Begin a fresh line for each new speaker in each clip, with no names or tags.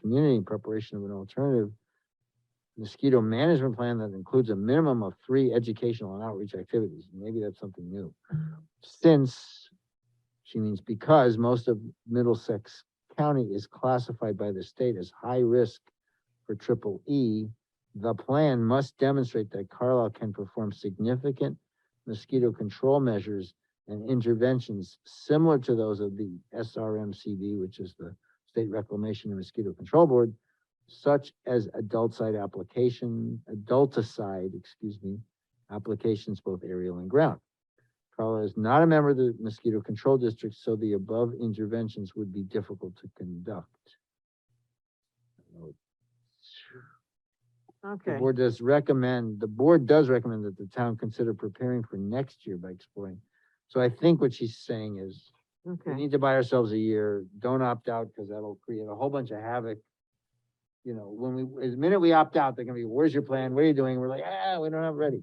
community in preparation of an alternative mosquito management plan that includes a minimum of three educational and outreach activities. Maybe that's something new. Since, she means because most of Middlesex County is classified by the state as high risk for triple E, the plan must demonstrate that Carlisle can perform significant mosquito control measures and interventions similar to those of the SRMCB, which is the State Reclamation and Mosquito Control Board, such as adulticide application, adulticide, excuse me, applications both aerial and ground. Carlisle is not a member of the mosquito control district, so the above interventions would be difficult to conduct. The
Okay,
board does recommend, the board does recommend that the town consider preparing for next year by exploring. So I think what she's saying is, we
okay,
need to buy ourselves a year, don't opt out, because that'll create a whole bunch of havoc. You know, when we, the minute we opt out, they're gonna be, where's your plan, what are you doing, we're like, ah, we don't have it ready.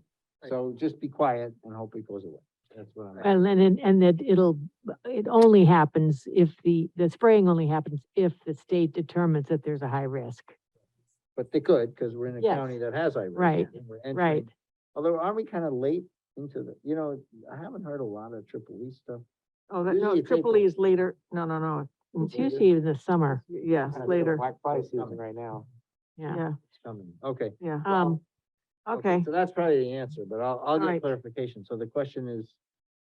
So just be quiet and hope it goes away, that's what I'm.
And then, it- and that it'll, it only happens if the, the spraying only happens if the state determines that there's a high risk.
But they could, because we're in a
Yes.
county that has high risk.
Right,
and we're entering-
Right,
Although, aren't we kind of late into the, you know, I haven't heard a lot of triple E stuff.
oh, that,
usually
no,
it's
triple E
April.
is later, no, no, no,
it's usually in the summer,
y- yes,
Uh,
later,
Black Friday
It's coming.
season right now.
yeah.
yeah,
It's coming, okay.
yeah,
Um,
okay,
So that's probably the answer, but I'll, I'll get
Alright.
clarification. So the question is,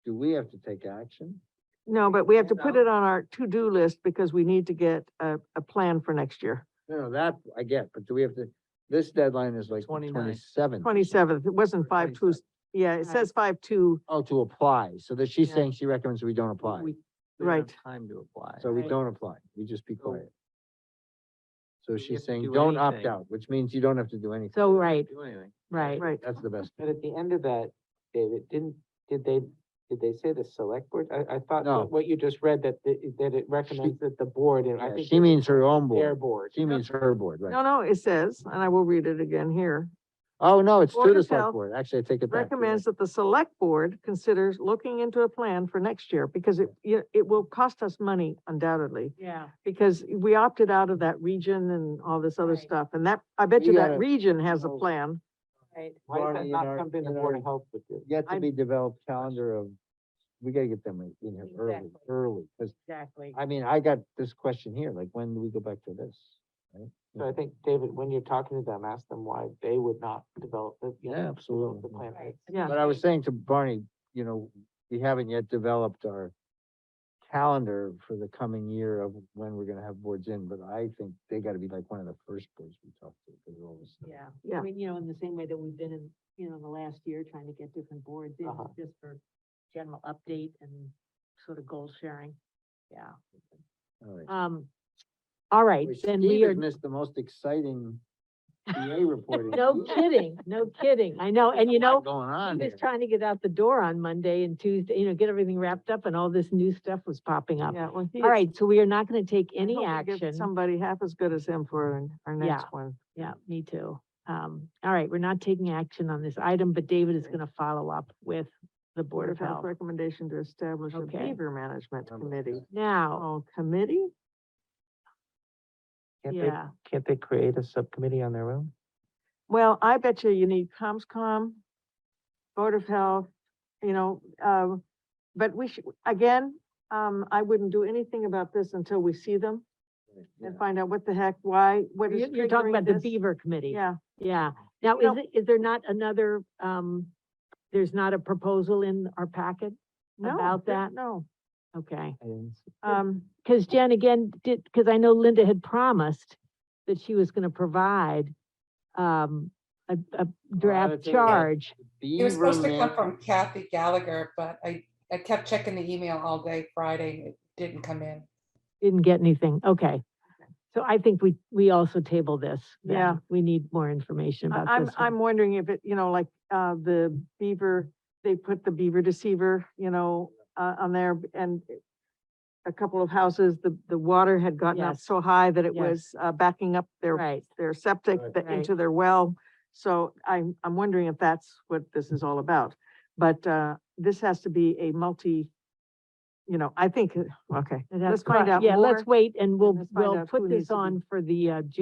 do we have to take action?
no, but we have to put
Yeah.
it on our to-do list because we need to get a, a plan for next year.
No, no, that I get, but do we have to, this deadline is like
29.
twenty-seven.
Twenty-seventh, it wasn't five two, yeah, it
Right.
says five two,
Oh, to apply. So that she's
Yeah.
saying she recommends we don't apply.
We- we don't have
Right.
Time to apply.
So we
Right.
don't apply. We just be
So-
quiet. So
we
she's
have to
saying,
do
don't opt
anything?
out, which means you don't have to do anything.
So, right,
Do anything.
right.
Oh, right,
That's the best.
But at the end of that, David, didn't, did they, did they say the select board? I, I thought
No.
that what you just read that, the- that it recommends that the board, and I
Yeah,
think.
She
it was
means her own
Their
board.
board.
She means her board,
no,
right?
no, it says, and I will read it again here.
Oh, no, it's
Board
to the
of
select
Health
board. Actually, I take it back. You're
recommends
right.
that the select board considers looking into a plan for next year, because it, you- it will cost us money undoubtedly.
Yeah.
Because we opted out of that region and all this other
Right.
stuff, and that, I bet
We
you
gotta-
that region has a
Oh.
plan.
Right.
Why
Barney,
is that
in our-
not something the
in
board
our-
of health would do?
Yet to
I'm-
be developed calendar of, we gotta get them in here early,
Exactly.
early, because
Exactly.
I mean, I got this question here, like, when do we go back to this?
So I think, David, when you're talking to them, ask them why they would not develop the, you
Yeah,
know, develop
absolutely.
the plan.
Yeah.
But I was saying to Barney, you know, we haven't yet developed our calendar for the coming year of when we're gonna have boards in, but I think they gotta be like one of the first boards we talk to. 'cause of all this stuff.
Yeah.
Yeah.
I mean, you know, in the same way that we've been in, you know, in the last year trying to get different boards in,
Uh-huh.
just for general update and sort of goal sharing. Yeah.
All right.
Um, all right,
Boy,
then
Steve
we
has
are,
Missed the most exciting BA reporting.
no kidding, no kidding. I know, and you
There's a lot
know,
Going on
he
here.
was trying to get out the door on Monday and Tuesday, you know, get everything wrapped up and all this new stuff was popping up.
Yeah, well, he-
All right, so we are not going to take
I
any
hope we get
action.
Somebody half as good as him for our- our
Yeah.
next one.
Yeah, me too. Um, all right, we're not taking action on this item, but David is
Okay.
gonna follow up with the Board of Health.
Recommendation to establish a
Okay.
behavior management committee.
Now,
Oh, committee?
Can't they,
yeah,
can't they create a subcommittee on their own?
Well, I bet you you need COMSCOM, Board of Health, you know, um, but we should, again, um, I wouldn't do anything about this until we see them
Yeah.
and find out what the heck, why, what is
you're, you're talking
triggering
about the
this.
Beaver Committee.
Yeah,
Yeah. Now,
You know-
is it, is there not another, um, there's not a proposal in our packet?
no.
About
there-
that?
No,
Okay.
I didn't see-
um,
Cause Jen again did, cause I know Linda had promised that she was gonna provide, um, a, a draft
it's a-
charge.
It was supposed to come
Beaver
from Kathy Gallagher, but I, I kept checking the email all day Friday. It didn't come in.
Didn't get anything. Okay. So I think we, we also table this. then.
Yeah.
We need more information
I-
about
I'm,
this one.
I'm wondering if it, you know, like, uh, the beaver, they put the beaver deceiver, you know, uh, on there and it- a couple of houses, the, the water had gotten up
Yes.
so high that it
Yes.
was, uh, backing up their
Right.
their septic
Right.
th-
Right.
into their well. So I'm, I'm wondering if that's what this is all about. But uh, this has to be a multi, you know, I think, okay,
That's
let's find
correct.
out
Yeah,
more.
let's wait and we'll,
let's find
we'll
out who
put
needs
this
to be-
on for the uh, June